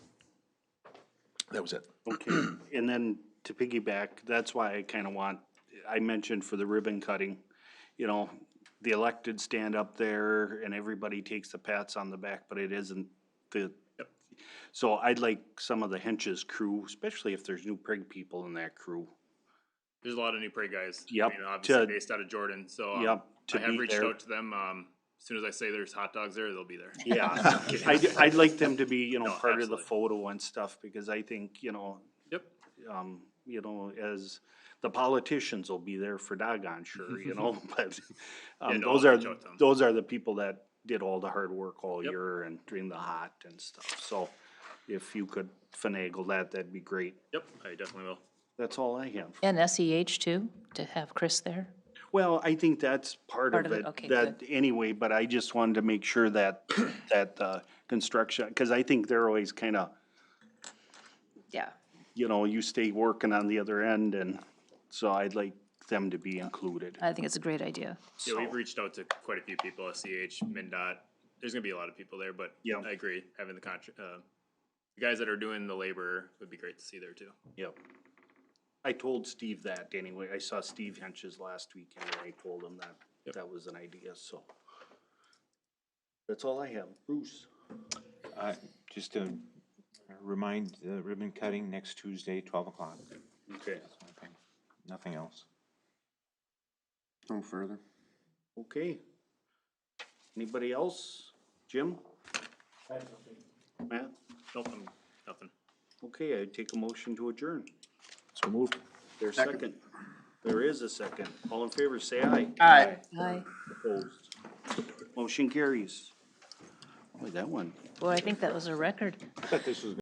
That was it. Okay, and then to piggyback, that's why I kind of want, I mentioned for the ribbon cutting, you know, the elected stand up there and everybody takes the pats on the back, but it isn't the. So I'd like some of the hench's crew, especially if there's new prig people in that crew. There's a lot of new prairie guys. I Yep, mean, obviously to- based out of Jordan. So um, Yep, to I have be reached there. out to them. Um, as soon as I say there's hot dogs there, they'll be there. Yeah, I'd, I'd like them to be, you know, No, part of the absolutely. photo and stuff, because I think, you know, Yep. um, you know, as the politicians will be there for doggone sure, you know, but Yeah, um, no, those I'll are, reach out to 'em. those are the people that did all the hard work all Yep. year and during the hot and stuff, so if you could finagle that, that'd be great. Yep. I definitely will. That's all I have. And SEH too, to have Chris there? Well, I think that's part Part of of it, it, okay, that, anyway, but I just wanted to make sure that, that, uh, construction, cause I think they're always kinda, Yeah. you know, you stay working on the other end and, so I'd like them to be included. I think it's a great idea. Yeah, we've reached out to quite a few people, SCH, MnDOT. There's gonna be a lot of people there, but Yeah. I agree, having the contract, uh, the guys that are doing the labor would be great to see there too. Yep. I told Steve that anyway. I saw Steve Hench's last week and I told him that that was an idea, so. That's all I have. Bruce? Uh, Just to remind, the ribbon cutting next Tuesday, twelve o'clock. Okay. Nothing else. No further. Okay. Anybody else? Jim? Matt? Nope, I'm, nothing. Okay, I take a motion to adjourn. So moved. There's second. There is a second. All in favor, say aye. Aye. Aye. Opposed. Motion carries. Boy, that one. Boy, I think that was a record. I thought this was